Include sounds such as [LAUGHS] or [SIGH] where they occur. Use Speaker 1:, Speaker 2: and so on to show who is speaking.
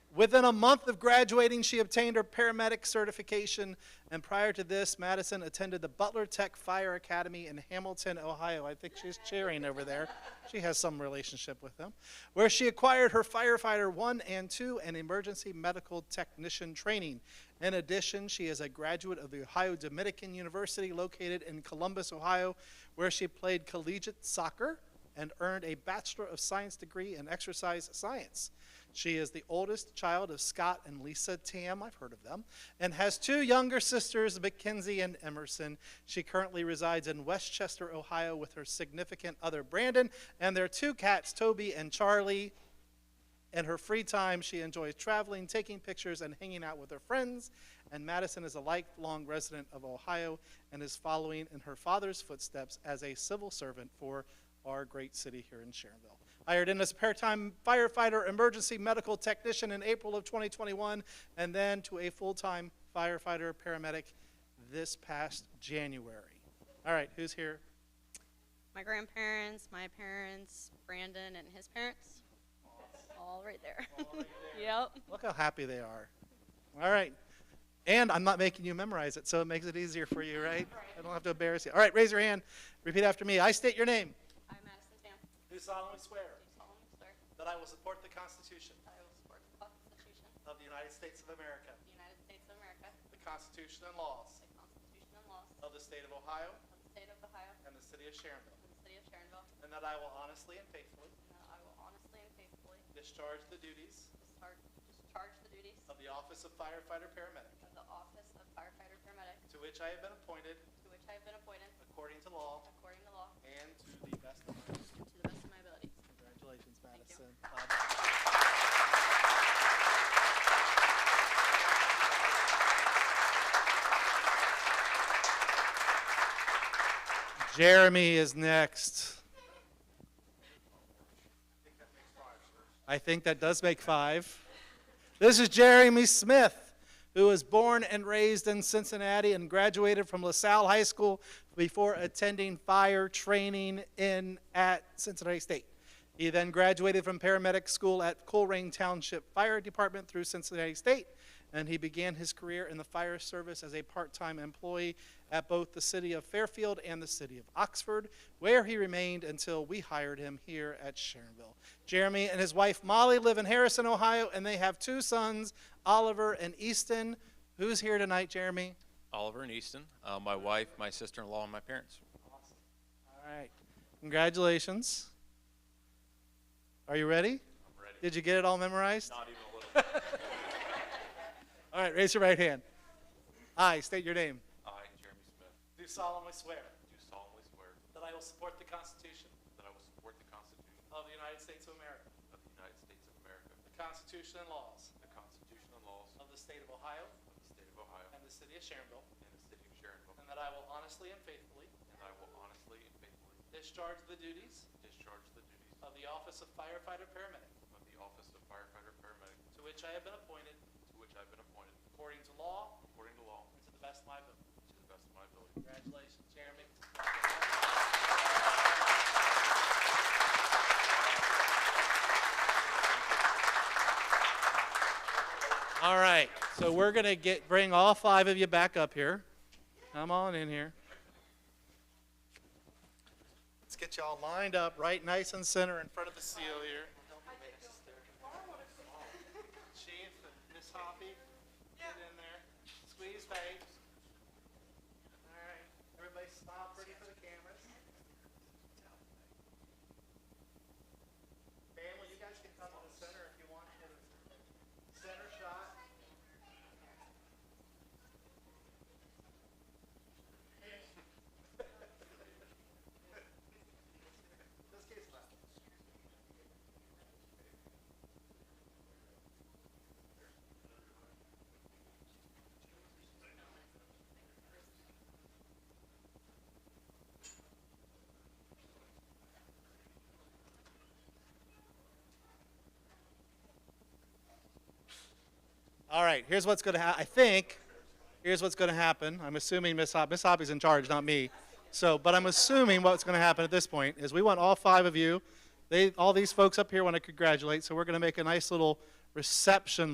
Speaker 1: Within a month of graduating, she obtained her paramedic certification, and prior to this, Madison attended the Butler Tech Fire Academy in Hamilton, Ohio. I think she's cheering over there. She has some relationship with them, where she acquired her firefighter one and two and emergency medical technician training. In addition, she is a graduate of the Ohio Dominican University located in Columbus, Ohio, where she played collegiate soccer and earned a Bachelor of Science degree in exercise science. She is the oldest child of Scott and Lisa Tam, I've heard of them, and has two younger sisters, Mackenzie and Emerson. She currently resides in Westchester, Ohio, with her significant other, Brandon, and their two cats, Toby and Charlie. In her free time, she enjoys traveling, taking pictures, and hanging out with her friends. And Madison is a lifelong resident of Ohio and is following in her father's footsteps as a civil servant for our great city here in Sharonville. Hired in as a part-time firefighter, emergency medical technician in April of 2021, and then to a full-time firefighter paramedic this past January. All right, who's here?
Speaker 2: My grandparents, my parents, Brandon and his parents. All right there. [LAUGHS] Yep.
Speaker 1: Look how happy they are. All right. And I'm not making you memorize it, so it makes it easier for you, right? I don't have to embarrass you. All right, raise your hand. Repeat after me. I state your name.
Speaker 2: I, Madison Stamp,
Speaker 1: Do solemnly swear
Speaker 2: do solemnly swear that
Speaker 1: that I will support the Constitution
Speaker 2: I will support the Constitution
Speaker 1: of
Speaker 2: of
Speaker 1: the United States of America,
Speaker 2: the United States of America,
Speaker 1: the Constitution and laws
Speaker 2: the Constitution and laws
Speaker 1: of the state of Ohio
Speaker 2: of the state of Ohio
Speaker 1: and the city of Sharonville,
Speaker 2: and the city of Sharonville,
Speaker 1: and that I will honestly and faithfully
Speaker 2: and that I will honestly and faithfully
Speaker 1: discharge the duties
Speaker 2: discharge, discharge the duties
Speaker 1: of the office of firefighter paramedic
Speaker 2: of the office of firefighter paramedic
Speaker 1: to which I have been appointed
Speaker 2: to which I have been appointed
Speaker 1: according to law
Speaker 2: according to law
Speaker 1: and to the best of my ability.
Speaker 2: and to the best of my ability.
Speaker 1: Congratulations,
Speaker 2: you.
Speaker 1: Madison. Jeremy is next. I think that does make five. This is Jeremy Smith, who was born and raised in Cincinnati and graduated from LaSalle High School before attending fire training in at Cincinnati State. He then graduated from paramedic school at Colerain Township Fire Department through Cincinnati State, and he began his career in the fire service as a part-time employee at both the city of Fairfield and the city of Oxford, where he remained until we hired him here at Sharonville. Jeremy and his wife Molly live in Harrison, Ohio, and they have two sons, Oliver and Easton. Who's here tonight, Jeremy?
Speaker 3: Oliver and Easton, uh, my wife, my sister-in-law, and my parents.
Speaker 1: All right. Congratulations. Are you ready? I'm
Speaker 3: ready.
Speaker 1: Did you get it all memorized?
Speaker 3: Not even a [LAUGHS] little.
Speaker 1: All right, raise your right hand. I state your name.
Speaker 3: I, Jeremy Smith,
Speaker 1: Do solemnly swear
Speaker 3: do solemnly swear
Speaker 1: that I will support the Constitution
Speaker 3: that I will support the Constitution
Speaker 1: of the United States of America,
Speaker 3: of the United States of America,
Speaker 1: the Constitution and laws
Speaker 3: the Constitution and laws
Speaker 1: of the state of Ohio
Speaker 3: of the state of Ohio
Speaker 1: and the city of Sharonville,
Speaker 3: and the city of Sharonville,
Speaker 1: and that I will honestly and faithfully
Speaker 3: and I will honestly and faithfully
Speaker 1: discharge the duties
Speaker 3: discharge the duties
Speaker 1: of the office of firefighter paramedic
Speaker 3: of the office of firefighter paramedic
Speaker 1: to which I have been appointed
Speaker 3: to which I've been appointed
Speaker 1: according to law
Speaker 3: according to law
Speaker 1: and to the best of my ability.
Speaker 3: to the best of my ability.
Speaker 1: Congratulations, Jeremy. All right, so we're gonna get, bring all five of you back up here. Come on in here. Let's get y'all lined up, right nice and center in front of the seal here. Chief and Miss Hoppy, get in there, squeeze babes. All right, everybody stop, ready for the cameras. Family, you guys can come to the center if you want to. Center shot. This case left. All right, here's what's going to happen. I think here's what's going to happen. I'm assuming Miss Hop- Miss Hoppy's in charge, not me. So, but I'm assuming what's going to happen at this point is we want all five of you. They, all these folks up here want to congratulate, so we're going to make a nice little reception